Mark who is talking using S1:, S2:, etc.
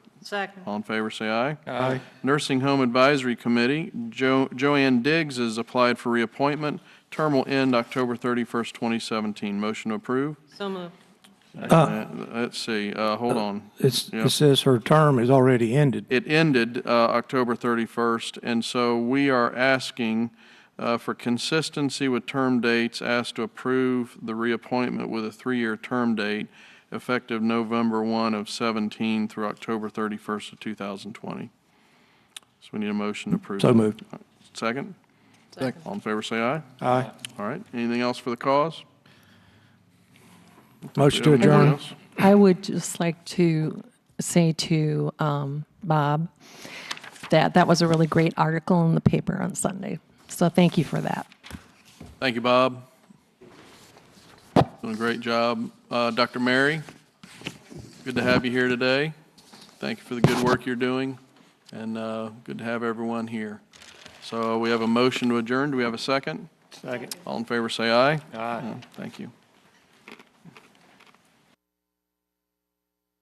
S1: Second.
S2: All in favor, say aye.
S3: Aye.
S2: Nursing Home Advisory Committee, Jo- Joanne Diggs has applied for reappointment. Term will end October 31st, 2017. Motion to approve?
S1: So moved.
S2: Uh, Let's see, uh, hold on.
S3: It's,
S2: Yeah.
S3: it says her term is already ended.
S2: It ended uh, October 31st, and so we are asking uh, for consistency with term dates, asked to approve the reappointment with a three-year term date effective November 1 of 17 through October 31st of 2020. So we need a motion to approve.
S3: So
S2: that.
S3: moved.
S2: Second?
S1: Second.
S2: All in favor, say aye.
S3: Aye.
S2: All right, anything else for the cause?
S3: Motion to
S2: Anything
S3: adjourn.
S2: else?
S4: I would just like to say to um, Bob that that was a really great article in the paper on Sunday. So thank you for that.
S2: Thank you, Bob. Doing a great job. Uh, Dr. Mary, good to have you here today. Thank you for the good work you're doing, and uh, good to have everyone here. So we have a motion to adjourn. Do we have a second? Second. All in favor, say aye. Aye. Thank you.